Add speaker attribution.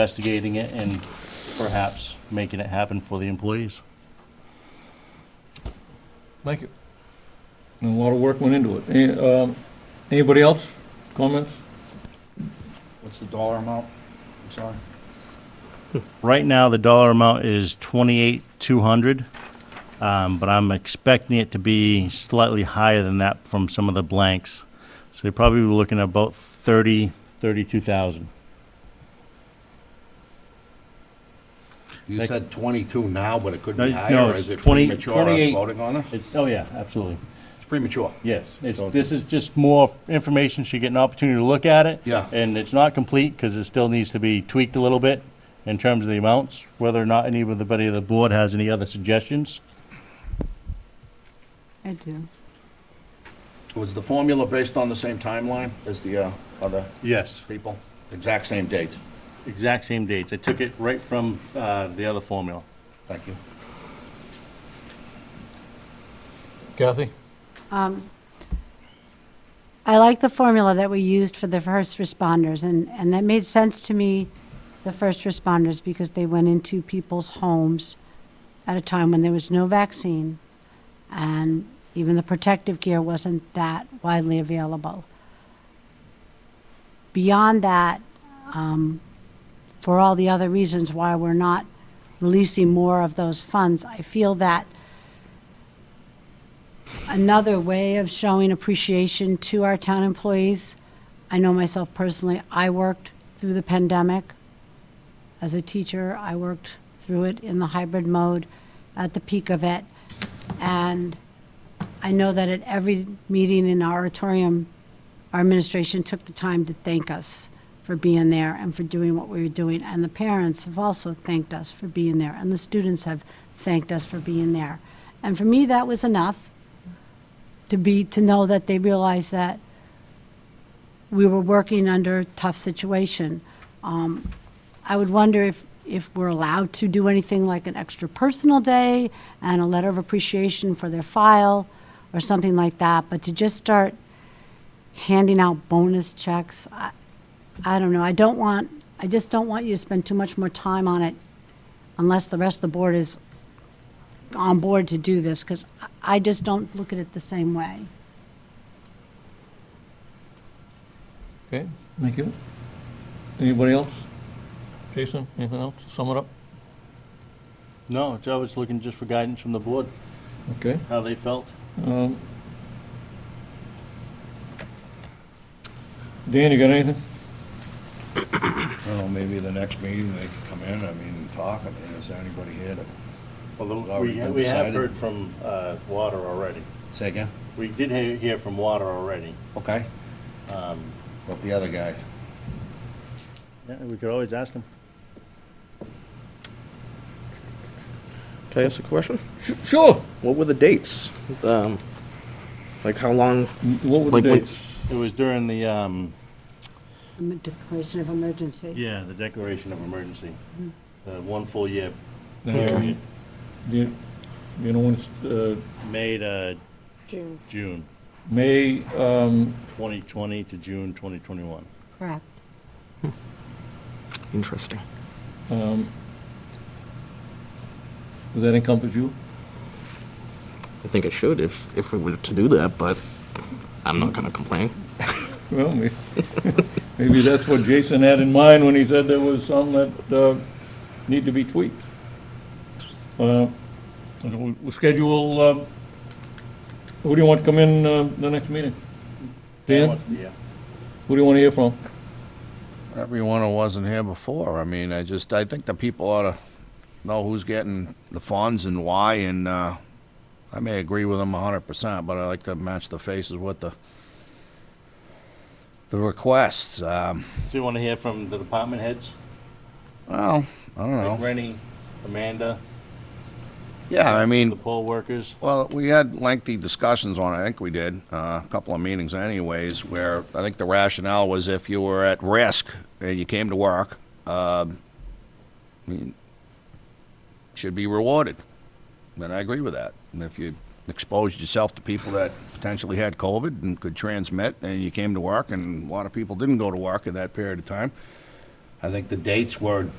Speaker 1: investigating it and perhaps making it happen for the employees.
Speaker 2: Thank you. And a lot of work went into it. Any- um, Anybody else? Comments?
Speaker 3: What's the dollar amount? I'm sorry.
Speaker 1: Right now, the dollar amount is twenty-eight, two hundred, um, but I'm expecting it to be slightly higher than that from some of the blanks. So you're probably looking at about thirty, thirty-two thousand.
Speaker 3: You
Speaker 1: Thank-
Speaker 3: said twenty-two now, but it could
Speaker 1: No,
Speaker 3: be
Speaker 1: no,
Speaker 3: higher.
Speaker 1: it's
Speaker 3: Is it
Speaker 1: 20
Speaker 3: premature us
Speaker 1: 28.
Speaker 3: voting on this?
Speaker 1: It, oh yeah, absolutely.
Speaker 3: It's premature.
Speaker 1: Yes, it's, this is just more information, she get an opportunity to look at it.
Speaker 3: Yeah.
Speaker 1: And it's not complete, because it still needs to be tweaked a little bit in terms of the amounts, whether or not anybody of the board has any other suggestions.
Speaker 4: I do.
Speaker 3: Was the formula based on the same timeline as the uh, other
Speaker 1: Yes.
Speaker 3: people? Exact same dates?
Speaker 1: Exact same dates, I took it right from, uh, the other formula.
Speaker 3: Thank you.
Speaker 2: Kathy?
Speaker 4: I like the formula that we used for the first responders, and, and that made sense to me, the first responders, because they went into people's homes at a time when there was no vaccine, and even the protective gear wasn't that widely available. Beyond that, um, for all the other reasons why we're not releasing more of those funds, I feel that another way of showing appreciation to our town employees. I know myself personally, I worked through the pandemic. As a teacher, I worked through it in the hybrid mode at the peak of it. And I know that at every meeting in our auditorium, our administration took the time to thank us for being there and for doing what we were doing. And the parents have also thanked us for being there, and the students have thanked us for being there. And for me, that was enough to be, to know that they realized that we were working under a tough situation. Um, I would wonder if, if we're allowed to do anything like an extra personal day and a letter of appreciation for their file or something like that, but to just start handing out bonus checks, I, I don't know, I don't want, I just don't want you to spend too much more time on it unless the rest of the board is on board to do this, because I just don't look at it the same way.
Speaker 2: Okay, thank you. Anybody else? Jason, anything else? Sum it up?
Speaker 1: No, I was looking just for guidance from the board,
Speaker 2: Okay.
Speaker 1: how they felt.
Speaker 2: um, Dan, you got anything?
Speaker 3: I don't know, maybe the next meeting they could come in, I mean, and talk. I mean, is there anybody here to
Speaker 1: Although
Speaker 3: already
Speaker 1: we,
Speaker 3: been
Speaker 1: we have
Speaker 3: decided.
Speaker 1: heard from, uh, water already.
Speaker 3: say again?
Speaker 1: We did he- hear from water already.
Speaker 3: Okay.
Speaker 1: Um,
Speaker 3: What the other guys?
Speaker 1: yeah, we could always ask them.
Speaker 5: Can I ask a question?
Speaker 2: Sure.
Speaker 5: What were the dates? Um, like how long?
Speaker 2: What were the
Speaker 5: Like when-
Speaker 2: dates?
Speaker 1: It was during the, um,
Speaker 4: Em- Declaration of emergency.
Speaker 1: yeah, the declaration of emergency, the one full year
Speaker 2: Um,
Speaker 1: period,
Speaker 2: Do you do you know when it's, uh,
Speaker 1: May to
Speaker 4: June.
Speaker 1: June
Speaker 2: May, um,
Speaker 1: 2020 to June 2021.
Speaker 4: Correct.
Speaker 5: Interesting.
Speaker 2: does that encompass you?
Speaker 5: I think it should if if we were to do that, but I'm not gonna complain.
Speaker 2: Well, may- maybe that's what Jason had in mind when he said there was some that uh, need to be tweaked. Uh, and We'll we'll schedule, uh, who do you want to come in uh, the next meeting? Dan,
Speaker 1: Yeah.
Speaker 2: who do you want to hear from?
Speaker 3: Everyone who wasn't here before, I mean, I just, I think the people ought to know who's getting the funds and why, and, uh, I may agree with them a hundred percent, but I like to match the faces with the, the requests, um,
Speaker 1: So you want to hear from the department heads?
Speaker 3: well, I don't
Speaker 1: Like
Speaker 3: know.
Speaker 1: Rennie, Amanda,
Speaker 3: Yeah, I
Speaker 1: the
Speaker 3: mean,
Speaker 1: poll workers?
Speaker 3: well, we had lengthy discussions on it, I think we did, uh, a couple of meetings anyways, where I think the rationale was if you were at risk and you came to work, um, I mean, should be rewarded. And I agree with that. And if you exposed yourself to people that potentially had COVID and could transmit, and you came to work, and a lot of people didn't go to work in that period of time, I think the dates were